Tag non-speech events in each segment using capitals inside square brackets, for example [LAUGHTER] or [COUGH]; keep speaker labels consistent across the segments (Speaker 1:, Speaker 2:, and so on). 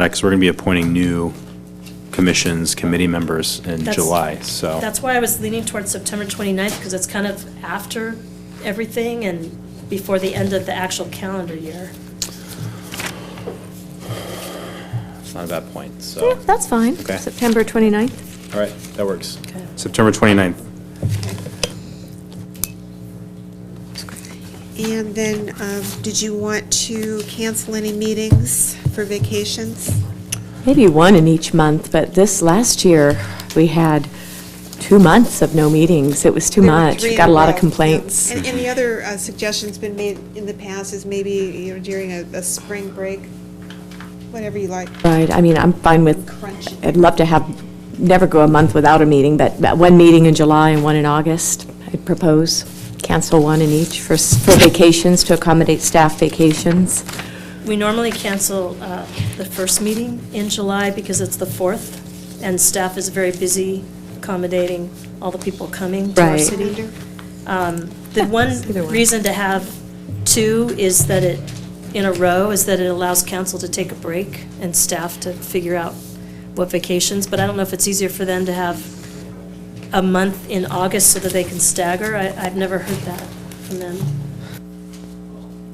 Speaker 1: because we're going to be appointing new commissions, committee members in
Speaker 2: That's-
Speaker 1: July, so.
Speaker 2: That's why I was leaning towards September 29th, because it's kind of after everything and before the end of the actual calendar year.
Speaker 1: It's not a bad point, so,
Speaker 3: Yeah, that's fine.
Speaker 1: Okay.
Speaker 3: September 29th.
Speaker 1: all right, that works.
Speaker 2: Okay.
Speaker 1: September 29th.
Speaker 4: And then, um, did you want to cancel any meetings for vacations?
Speaker 5: Maybe one in each month, but this last year, we had two months of no meetings. It was too
Speaker 4: There were
Speaker 5: much.
Speaker 4: three in
Speaker 5: Got a lot of
Speaker 4: row.
Speaker 5: complaints.
Speaker 4: And, and the other uh, suggestion's been made in the past is maybe, you know, during a, a spring break, whatever you like.
Speaker 5: Right, I mean, I'm fine with,
Speaker 4: Crunchy.
Speaker 5: I'd love to have, never go a month without a meeting, but but one meeting in July and one in August, I'd propose. Cancel one in each for s- for vacations, to accommodate staff vacations.
Speaker 2: We normally cancel uh, the first meeting in July because it's the 4th, and staff is very busy accommodating all the people coming to our
Speaker 5: Right.
Speaker 2: city. Um,
Speaker 5: [LAUGHS]
Speaker 2: The one
Speaker 5: Either one.
Speaker 2: reason to have two is that it, in a row, is that it allows council to take a break and staff to figure out what vacations, but I don't know if it's easier for them to have a month in August so that they can stagger. I- I've never heard that from them.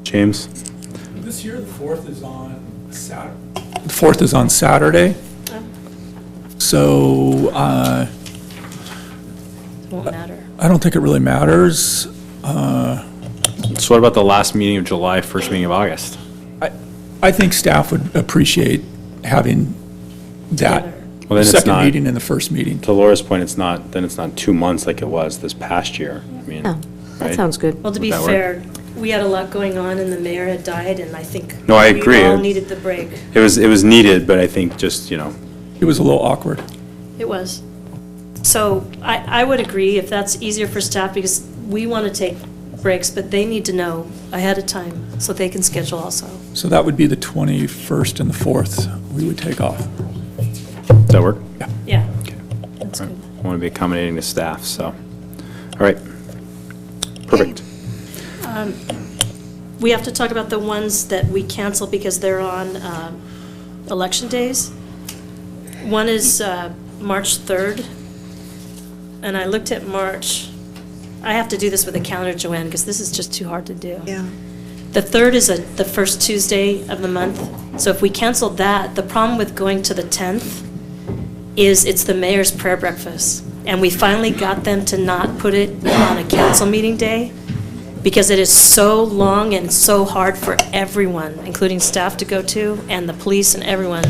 Speaker 1: James?
Speaker 6: This year, the 4th is on Saturday. The 4th is on Saturday. So uh,
Speaker 2: It won't matter.
Speaker 6: I don't think it really matters.
Speaker 1: So what about the last meeting of July, first meeting of August?
Speaker 6: I think staff would appreciate having that
Speaker 1: Well, then it's
Speaker 6: second
Speaker 1: not-
Speaker 6: meeting and the first meeting.
Speaker 1: To Laura's point, it's not, then it's not two months like it was this past year. I mean,
Speaker 2: Oh.
Speaker 5: Yeah,
Speaker 1: right?
Speaker 5: Oh, that sounds good.
Speaker 2: Well, to
Speaker 1: Would
Speaker 2: be
Speaker 1: that work?
Speaker 2: fair, we had a lot going on, and the mayor had died, and I think.
Speaker 1: No, I agree.
Speaker 2: We all needed the break.
Speaker 1: It was, it was needed, but I think just, you know,
Speaker 6: It was a little awkward.
Speaker 2: It was. So I, I would agree if that's easier for staff, because we want to take breaks, but they need to know ahead of time, so they can schedule also.
Speaker 6: So that would be the 21st and the 4th we would take off.
Speaker 1: does that work?
Speaker 2: Yeah,
Speaker 1: All right. I want to be accommodating to staff, so. All right. Perfect.
Speaker 2: we have to talk about the ones that we cancel because they're on um, election days. One is uh, March 3rd, and I looked at March. I have to do this with a calendar, Joanne, because this is just too hard to do.
Speaker 4: Yeah.
Speaker 2: The 3rd is a- the first Tuesday of the month, so if we cancel that, the problem with going to the 10th is it's the mayor's prayer breakfast. And we finally got them to not put it on a council meeting day because it is so long and so hard for everyone, including staff to go to and the police and everyone.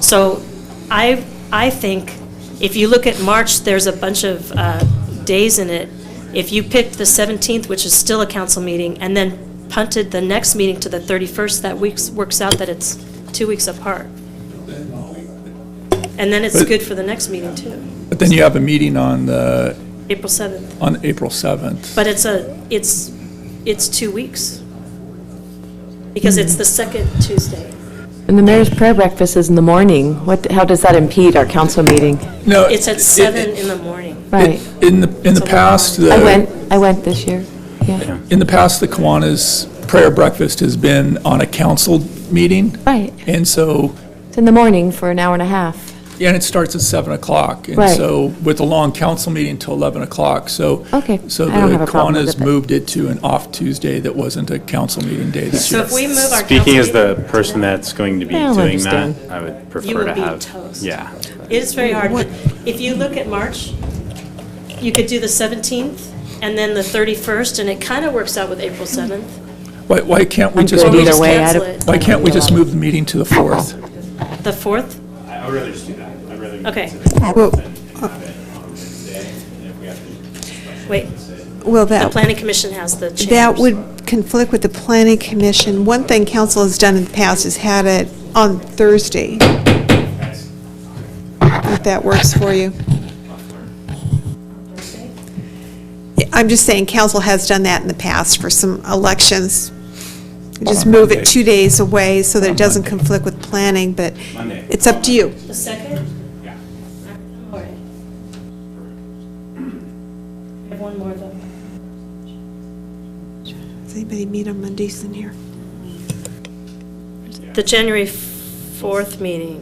Speaker 2: So I, I think if you look at March, there's a bunch of uh, days in it. If you picked the 17th, which is still a council meeting, and then punted the next meeting to the 31st, that weeks, works out that it's two weeks apart. And then it's
Speaker 6: But-
Speaker 2: good for the next meeting too,
Speaker 6: But then you have a meeting on the,
Speaker 2: April 7th.
Speaker 6: on April 7th.
Speaker 2: But it's a, it's, it's two weeks. Because it's the second Tuesday.
Speaker 5: And the mayor's prayer breakfast is in the morning. What, how does that impede our council meeting?
Speaker 6: No,
Speaker 2: It's
Speaker 6: it-
Speaker 2: at
Speaker 6: it-
Speaker 2: seven in the morning.
Speaker 5: Right.
Speaker 6: In the, in the past, the.
Speaker 5: I went, I went this year, yeah.
Speaker 6: In the past, the Kiwanis prayer breakfast has been on a council meeting,
Speaker 5: Right,
Speaker 6: and so,
Speaker 5: it's in the morning for an hour and a half.
Speaker 6: and it starts at 7 o'clock.
Speaker 5: Right.
Speaker 6: And so, with a long council meeting till 11 o'clock, so.
Speaker 5: Okay,
Speaker 6: So
Speaker 5: I don't
Speaker 6: the
Speaker 5: have a problem with it,
Speaker 6: Kiwanis
Speaker 5: but-
Speaker 6: moved it to an off Tuesday that wasn't a council meeting day this
Speaker 2: So
Speaker 6: year.
Speaker 2: if we move our council
Speaker 1: Speaking as the
Speaker 2: meeting to
Speaker 1: person
Speaker 2: that-
Speaker 1: that's going to be
Speaker 5: I'll
Speaker 1: doing
Speaker 5: understand.
Speaker 1: that, I would prefer to
Speaker 2: will
Speaker 1: have.
Speaker 2: be toast.
Speaker 1: Yeah.
Speaker 2: It is very hard. If you look at March, you could do the 17th and then the 31st, and it kind of works out with April 7th.
Speaker 6: Why, why can't we
Speaker 5: I'm
Speaker 6: just,
Speaker 5: good
Speaker 2: Or we
Speaker 6: move-
Speaker 5: either
Speaker 2: just
Speaker 5: way. I
Speaker 2: cancel
Speaker 5: don't-
Speaker 2: it.
Speaker 6: why can't we just move the meeting to the 4th?
Speaker 2: The 4th?
Speaker 7: I would rather just do that. I'd rather get
Speaker 2: Okay,
Speaker 4: Well,
Speaker 2: wait.
Speaker 4: well,
Speaker 2: The
Speaker 4: that,
Speaker 2: planning commission has the change.
Speaker 4: that would conflict with the planning commission. One thing council has done in the past is had it on Thursday. If that works for you. I'm just saying, council has done that in the past for some elections. Just move it two days away so that it doesn't conflict with planning, but it's up to you.
Speaker 2: The 2nd? Yeah. All right. I have one more, though.
Speaker 4: Does anybody meet on Mondays in here?
Speaker 2: The January 1st fourth meeting.